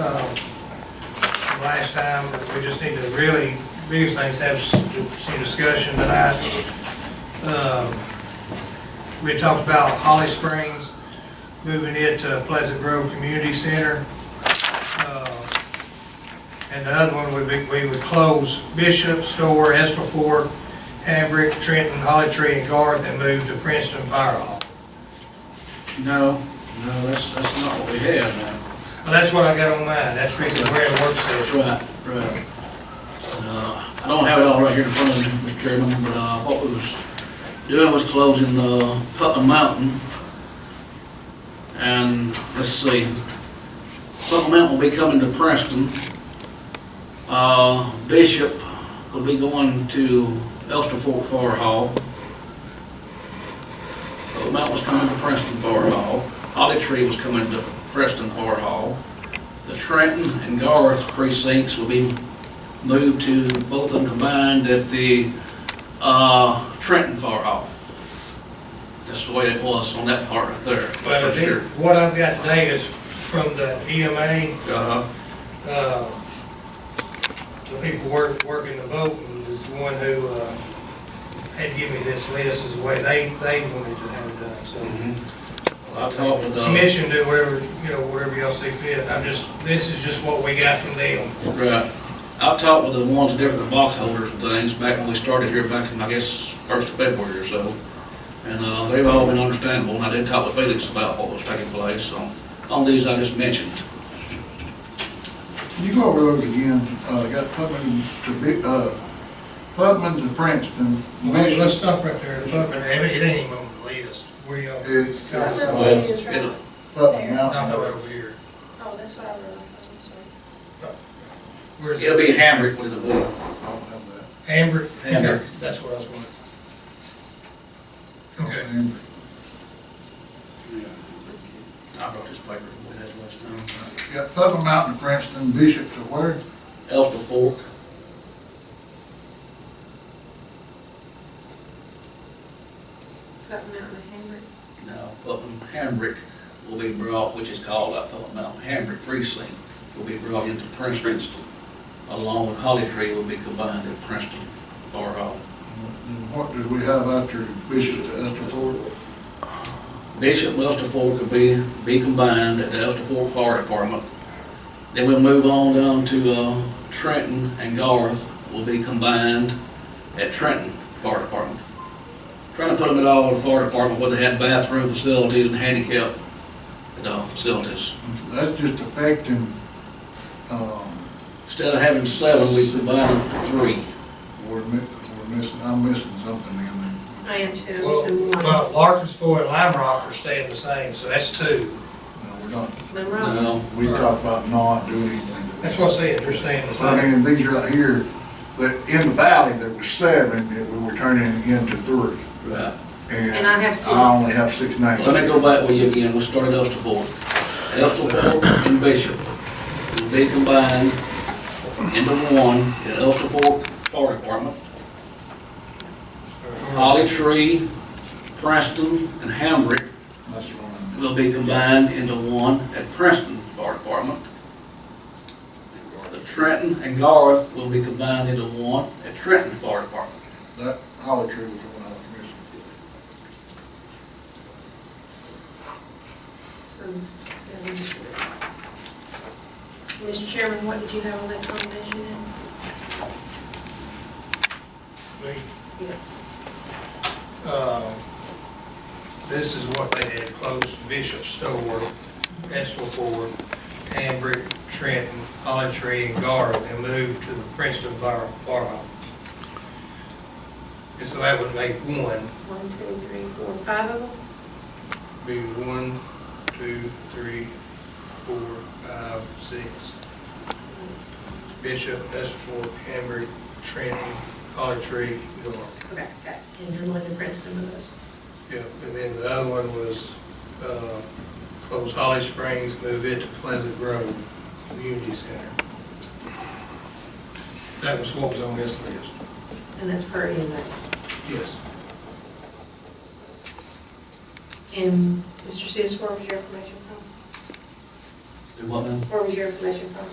Um, last time, we just need to really, biggest things have s- some discussion tonight. Um, We talked about Holly Springs, moving it to Pleasant Grove Community Center. Uh, And the other one would be, we would close Bishop, Store, Estill Ford, Hambrick, Trenton, Holly Tree, and Garth, and move to Princeton Fire Hall. No, no, that's, that's not what we have now. Well, that's what I got on mine, that's really where it works at. Right, right. Uh, I don't have it all right here in front of me, Mr. Chairman, but, uh, what we was doing was closing, uh, Putnam Mountain. And, let's see, Putnam Mountain will be coming to Preston. Uh, Bishop will be going to Elster Fork Fire Hall. Putnam Mountain was coming to Preston Fire Hall. Holly Tree was coming to Preston Fire Hall. The Trenton and Garth precincts will be moved to both of them combined at the uh, Trenton Fire Hall. That's the way it was on that part right there. But I for think sure. what I've got today is from the EMA, Uh-huh. uh, the people work, working the boat, and is the one who, uh, had given me this list, is the way they, they wanted to have it done, Mm-hmm. so. Mm-hmm. I talked with, uh, Commission do whatever, you know, whatever y'all see fit, I'm just, this is just what we got from them. right, I've talked with the ones, different box holders and things, back when we started here, back in, I guess, first of February or so. And, uh, they've all been understandable, and I did talk with Felix about what was taking place, so, on these I just mentioned. Can you go over those again? Uh, got Putman to Bi, uh, Putman to Princeton, Let's let's Bishop, stop right there, look, and it ain't even on the list, where y'all. It's- it's- uh, No, Well, Well, it's right. it'll- Putman no, Mountain. over here, Oh, that's what I wrote, I'm sorry. where's? It'll be Hamrick with the board. I don't have Amber? Amber. Okay, That's what I was that. wondering. Okay. I brought this paper with that last time. Got Putman Mountain to Princeton, Bishop to where? Elster Fork, That mountain of Hamrick. now Putnam Hamrick will be brought, which is called up Putnam Mountain Hamrick precinct, will be brought into Princeton. Along with Holly Tree will be combined at Princeton Far Hall. Mm-hmm. And what did we have after Bishop to Estill Ford? Bishop and Elster Fork will be, be combined at the Elster Fork Fire Department. Then we'll move on down to, uh, Trenton and Garth will be combined at Trenton Fire Department. Trying to put them at all in the fire department where they had bathroom facilities and handicap, you know, facilities. Mm-hmm. That's just affecting, um, Instead of having seven, we combined it to three. we're mi, we're missing, I'm missing something in there. I am too, it's in Well, one. well, Larkins Ford and Lime Rock are staying the same, so that's two. No, we're not, Monroe. Now, we talked about not doing anything to that. That's what I'm saying, they're staying the So, I mean, same. and these are out here, that in the valley, there was seven that we were turning into three. right, And I have six. I only have six names. let me go back with you again, we'll start at Elster Fork. Elster Fork and Bishop will be combined into one at Elster Fork Fire Department. Holly Tree, Preston, and Hamrick That's the one. will be combined into one at Preston Fire Department. The Trenton and Garth will be combined into one at Trenton Fire Department. That holly tree was the one I was missing. So, s- seven. Mr. Chairman, what did you have on that combination then? Yes. Uh, This is what they had, closed Bishop Store, Estill Ford, Hambrick, Trenton, Holly Tree, and Garth, and moved to the Princeton Fire Fire Hall. And so that would make one, One, two, three, four, five of them? be one, two, three, four, five, six. Bishop, Estill, Hambrick, Trenton, Holly Tree, North. Okay, got it. And you're going to Princeton with us? Yep, and then the other one was, uh, close Holly Springs, move it to Pleasant Grove Community Center. That was what was on this list. And that's per inmate. Yes. And Mr. Sis, where was your information from? Do what now? Where was your information from?